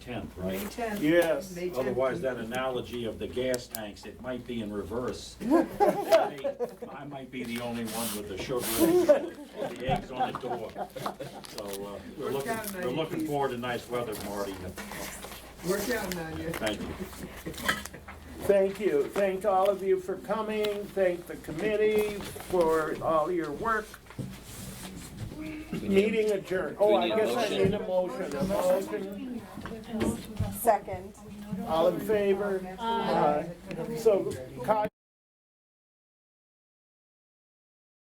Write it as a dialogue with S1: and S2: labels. S1: tenth,
S2: May
S1: right?
S2: tenth.
S3: Yes.
S2: May tenth.
S1: Otherwise, that analogy of the gas tanks, it might be in reverse. I might be the only one with the sugar and the eggs on the door. So, uh, we're looking, we're looking forward to nice weather, Marty.
S2: We're counting on you.
S1: Thank you.
S3: Thank you. Thank all of you for coming. Thank the committee for all your work. Meeting adjourned. Oh, I
S4: need a
S3: guess I
S4: motion.
S3: need a motion. A motion.
S5: Second.
S3: All in favor? Aye. So, Cog